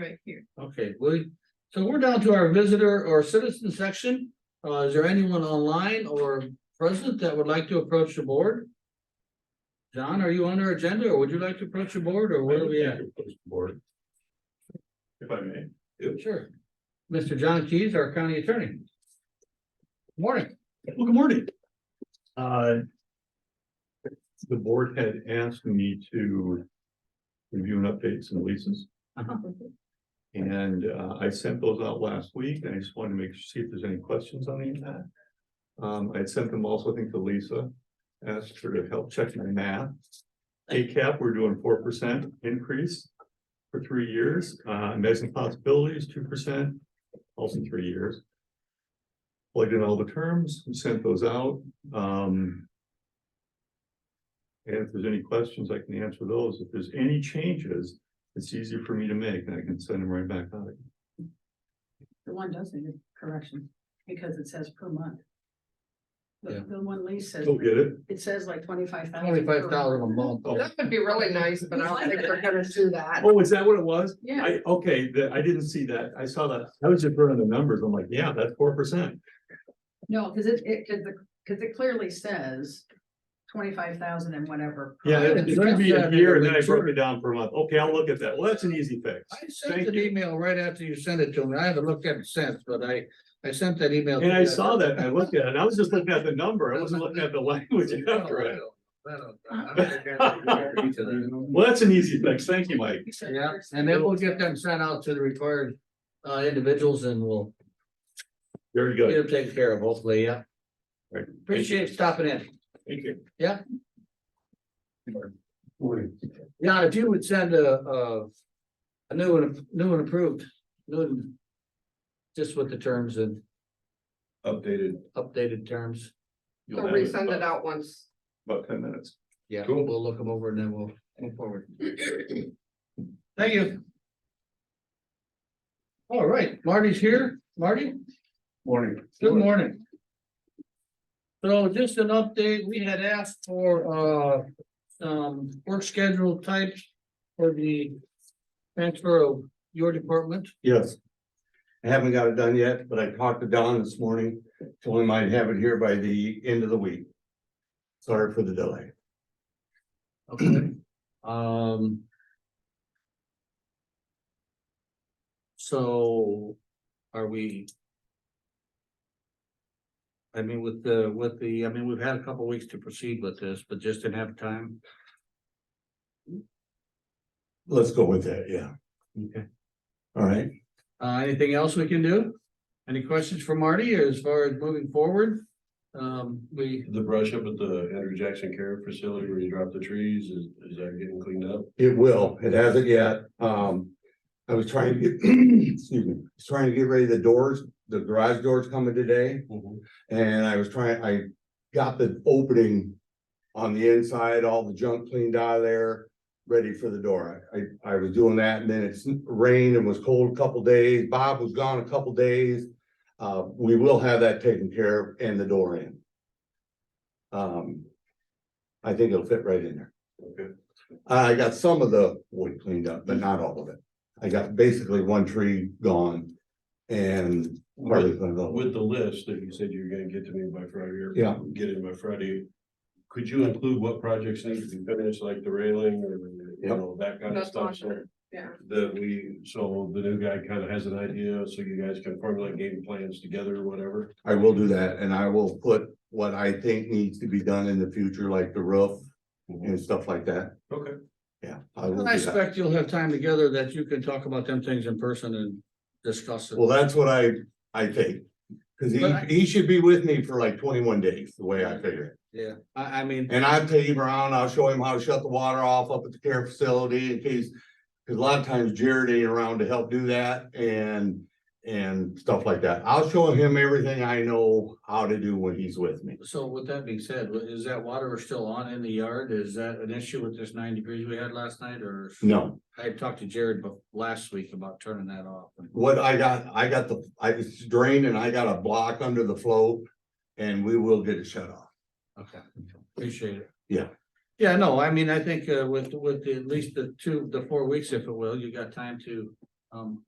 right here. Okay, we, so we're down to our visitor or citizen section. Uh, is there anyone online or present that would like to approach the board? John, are you on our agenda or would you like to approach the board or where are we at? Board. If I may. Sure. Mr. John Keys, our county attorney. Morning. Well, good morning. Uh. The board had asked me to review and update some leases. Uh-huh. And uh, I sent those out last week and I just wanted to make, see if there's any questions on any of that. Um, I had sent them also, I think, to Lisa, asked her to help check my math. ACAP, we're doing four percent increase for three years, uh, amazing possibilities, two percent, also three years. Plugged in all the terms, we sent those out, um. And if there's any questions, I can answer those. If there's any changes, it's easier for me to make, and I can send them right back out. again. The one does need a correction, because it says per month. Yeah. The, the one lease says, Still get it? it says like twenty-five thousand. Twenty-five thousand a month. That would be really nice, but I don't think they're gonna do that. Oh, is that what it was? Yeah, I, okay, that, I didn't see that. I saw that. I was just running the numbers. I'm like, yeah, that's four percent. no, cause it, it, cause the, cause it clearly says twenty-five thousand and whatever. per Yeah, month. it- it's gonna be a year, and then I broke it down per month. Okay, I'll look at that. Well, that's an easy fix. I sent Thank an you. email right after you sent it to me. I haven't looked at it since, but I, I sent that email. to And I you. saw that, and I looked at it, and I was just looking at the number. I wasn't looking at the language after it. Oh, Well, that's an easy fix. Thank you, Mike. He said Yeah, there's- and then we'll get them sent out to the required uh individuals and we'll Very get good. them taken care of, hopefully, yeah. Right. Appreciate stopping in. Thank you. Yeah. Morning. Yeah, if you would send a a a new and new and approved, new and just with the terms and Updated. updated terms. You'll They'll have in resend it about- out once. About ten minutes. Yeah, Cool. we'll look them over and then we'll move forward. Thank you. All right, Marty's here. Marty? Morning. Good morning. So just an update, we had asked for uh some work schedule types for the transfer of your department. Yes. I haven't got it done yet, but I talked to Don this morning, told him I'd have it here by the end of the week. Sorry for the delay. Okay. Um. So are we? I mean, with the, with the, I mean, we've had a couple weeks to proceed with this, but just didn't have time. Let's go with that, yeah. Okay. All right, Uh, anything else we can do? Any questions for Marty as far as moving forward? Um, we, The brush up at the Andrew Jackson Care Facility where you drop the trees, is, is that getting cleaned up? it will, it hasn't yet, um. I was trying to get, excuse me, I was trying to get ready, the doors, the garage doors coming today, and I was trying, I got the opening. On the inside, all the junk cleaned out of there, ready for the door. I, I was doing that and then it's rained and was cold a couple days. Bob was gone a couple days. Uh, we will have that taken care of and the door in. Um, I think it'll fit right in there. Okay. I got some of the wood cleaned up, but not all of it. I got basically one tree gone and hardly With cleaned up. with the list that you said you were gonna get to me by Friday or Yeah. get in by Friday. Could you include what projects need to be finished, like the railing or, you Yep. know, that kind of That's stuff? awesome. Yeah. That we, so the new guy kind of has an idea, so you guys can formulate game plans together or whatever. I will do that and I will put what I think needs to be done in the future, like the roof and stuff like that. Okay. Yeah. I will I do that. expect you'll have time together that you can talk about them things in person and discuss it. Well, that's what I, I think. Cause he, But I- he should be with me for like twenty-one days, the way I figure Yeah, I, I mean. it. And I'll take him around, I'll show him how to shut the water off up at the care facility in case. Cause a lot of times Jared ain't around to help do that and, and stuff like that. I'll show him everything I know how to do when he's with me. So with that being said, wa- is that water still on in the yard? Is that an issue with this nine degrees we had last night or? No, I had talked to Jared bef- last week about turning that off. What I got, I got the, I it's drained and I got a block under the flow and we will get it shut off. Okay, appreciate it. Yeah. Yeah, no, I mean, I think uh with with the- at least the two, the four weeks, if it will, you got time to Um,